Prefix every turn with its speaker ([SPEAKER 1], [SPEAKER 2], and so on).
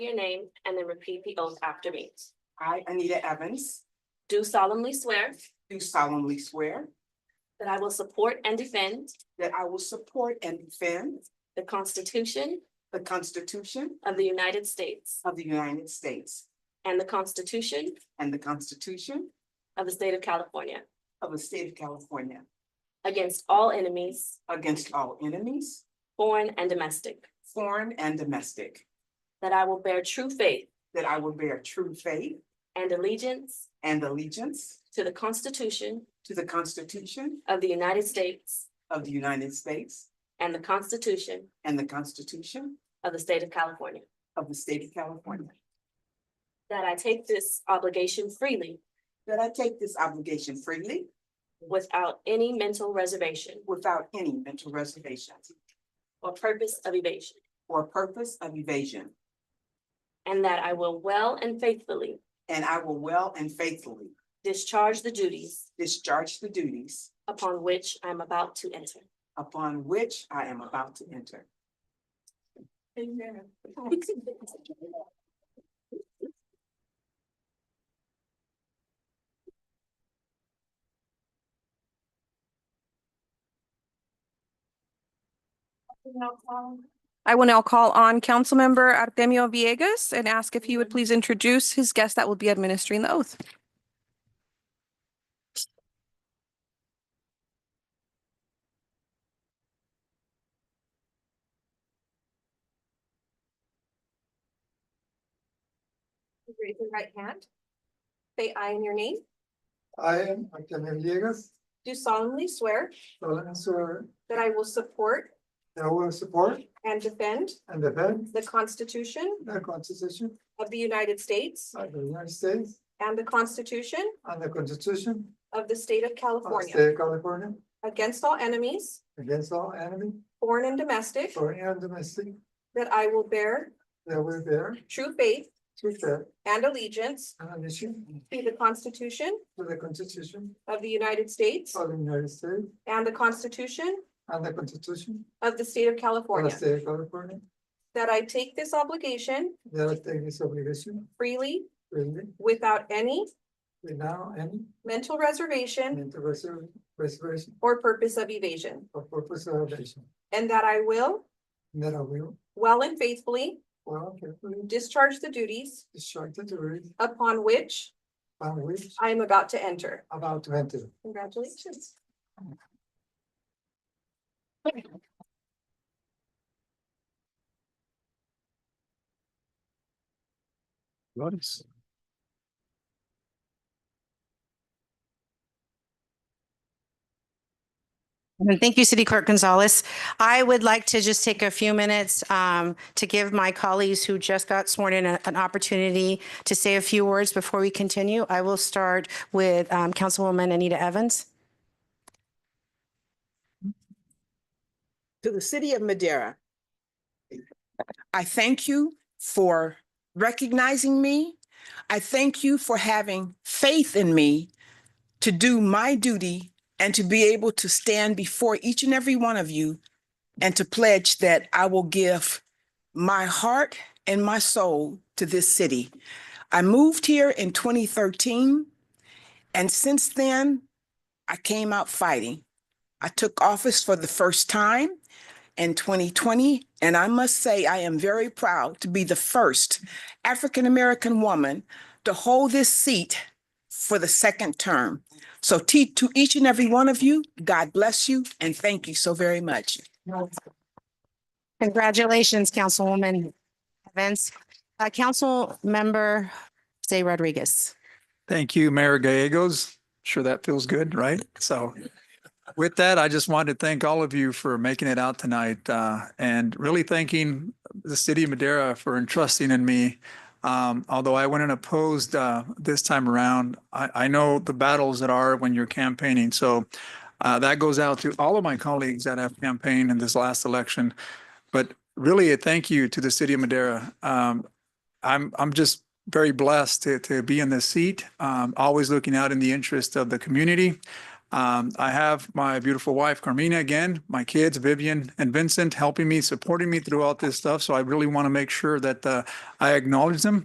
[SPEAKER 1] your name and then repeat the oath after me.
[SPEAKER 2] I, Anita Evans,
[SPEAKER 1] Do solemnly swear
[SPEAKER 2] do solemnly swear
[SPEAKER 1] that I will support and defend
[SPEAKER 2] that I will support and defend
[SPEAKER 1] the Constitution
[SPEAKER 2] the Constitution
[SPEAKER 1] of the United States
[SPEAKER 2] of the United States
[SPEAKER 1] and the Constitution
[SPEAKER 2] and the Constitution
[SPEAKER 1] of the State of California
[SPEAKER 2] of the State of California
[SPEAKER 1] against all enemies,
[SPEAKER 2] against all enemies,
[SPEAKER 1] foreign and domestic,
[SPEAKER 2] foreign and domestic,
[SPEAKER 1] that I will bear true faith
[SPEAKER 2] that I will bear true faith
[SPEAKER 1] and allegiance
[SPEAKER 2] and allegiance
[SPEAKER 1] to the Constitution
[SPEAKER 2] to the Constitution
[SPEAKER 1] of the United States
[SPEAKER 2] of the United States
[SPEAKER 1] and the Constitution
[SPEAKER 2] and the Constitution
[SPEAKER 1] of the State of California,
[SPEAKER 2] of the State of California,
[SPEAKER 1] that I take this obligation freely
[SPEAKER 2] that I take this obligation freely
[SPEAKER 1] without any mental reservation
[SPEAKER 2] without any mental reservation
[SPEAKER 1] or purpose of evasion,
[SPEAKER 2] or purpose of evasion,
[SPEAKER 1] and that I will well and faithfully
[SPEAKER 2] and I will well and faithfully
[SPEAKER 1] discharge the duties
[SPEAKER 2] Discharge the duties
[SPEAKER 1] upon which I am about to enter.
[SPEAKER 2] upon which I am about to enter.
[SPEAKER 3] I will now call on Councilmember Artemio Viegas and ask if he would please introduce his guest that will be administering the oath.
[SPEAKER 4] Raise your right hand. Say I in your name.
[SPEAKER 5] I am Antonio Villegas,
[SPEAKER 4] Do solemnly swear
[SPEAKER 5] solemn swear
[SPEAKER 4] that I will support
[SPEAKER 5] that I will support
[SPEAKER 4] and defend
[SPEAKER 5] and defend
[SPEAKER 4] the Constitution
[SPEAKER 5] the Constitution
[SPEAKER 4] of the United States
[SPEAKER 5] of the United States
[SPEAKER 4] and the Constitution
[SPEAKER 5] and the Constitution
[SPEAKER 4] of the State of
[SPEAKER 5] of the
[SPEAKER 4] California
[SPEAKER 5] State of California
[SPEAKER 4] against all enemies,
[SPEAKER 5] against all enemy,
[SPEAKER 4] foreign and domestic,
[SPEAKER 5] foreign and domestic,
[SPEAKER 4] that I will bear
[SPEAKER 5] that I will bear
[SPEAKER 4] true faith
[SPEAKER 5] true faith
[SPEAKER 4] and allegiance
[SPEAKER 5] and allegiance
[SPEAKER 4] to the Constitution
[SPEAKER 5] to the Constitution
[SPEAKER 4] of the United States
[SPEAKER 5] of the United States
[SPEAKER 4] and the Constitution
[SPEAKER 5] and the Constitution
[SPEAKER 4] of the State of
[SPEAKER 5] of the
[SPEAKER 4] California,
[SPEAKER 5] State of California,
[SPEAKER 4] that I take this obligation
[SPEAKER 5] that I take this obligation
[SPEAKER 4] freely
[SPEAKER 5] freely
[SPEAKER 4] without any
[SPEAKER 5] without any
[SPEAKER 4] mental reservation
[SPEAKER 6] Mm.
[SPEAKER 5] mental reserv- reservation
[SPEAKER 4] or purpose of evasion,
[SPEAKER 5] or purpose of evasion,
[SPEAKER 4] and that I will,
[SPEAKER 5] and that I will
[SPEAKER 4] well and faithfully,
[SPEAKER 5] well carefully
[SPEAKER 4] discharge the duties
[SPEAKER 5] discharge the duties
[SPEAKER 4] upon which
[SPEAKER 5] upon which
[SPEAKER 4] I am about to enter.
[SPEAKER 5] about to enter.
[SPEAKER 4] Congratulations.
[SPEAKER 6] Nice.
[SPEAKER 7] And Mm-hmm. Thank you, City Clerk Gonzalez. I would like to just take a few minutes um, to give my colleagues who just got sworn in a- an opportunity to say a few words before we continue. I will start with um, Councilwoman Anita Evans.
[SPEAKER 8] to the city of Madera. I thank you for recognizing me. I thank you for having faith in me to do my duty and to be able to stand before each and every one of you and to pledge that I will give my heart and my soul to this city. I moved here in 2013, and since then, I came out fighting. I took office for the first time in 2020, and I must say I am very proud to be the first African American woman to hold this seat for the second term. So te- to each and every one of you, God bless you and thank you so very much.
[SPEAKER 7] Congratulations, Councilwoman Evans. Uh, Councilmember Zay Rodriguez.
[SPEAKER 6] Thank you, Mayor Gallegos. Sure that feels good, right? So with that, I just wanted to thank all of you for making it out tonight uh, and really thanking the city of Madera for entrusting in me. Um, Although I went and opposed uh, this time around, I, I know the battles that are when you're campaigning. So uh, that goes out to all of my colleagues that have campaigned in this last election. But really a thank you to the city of Madera. Um, I'm, I'm just very blessed to, to be in this seat, um, always looking out in the interest of the community. Um, I have my beautiful wife Carmina again, my kids Vivian and Vincent helping me, supporting me through all this stuff. So I really want to make sure that, uh, I acknowledge them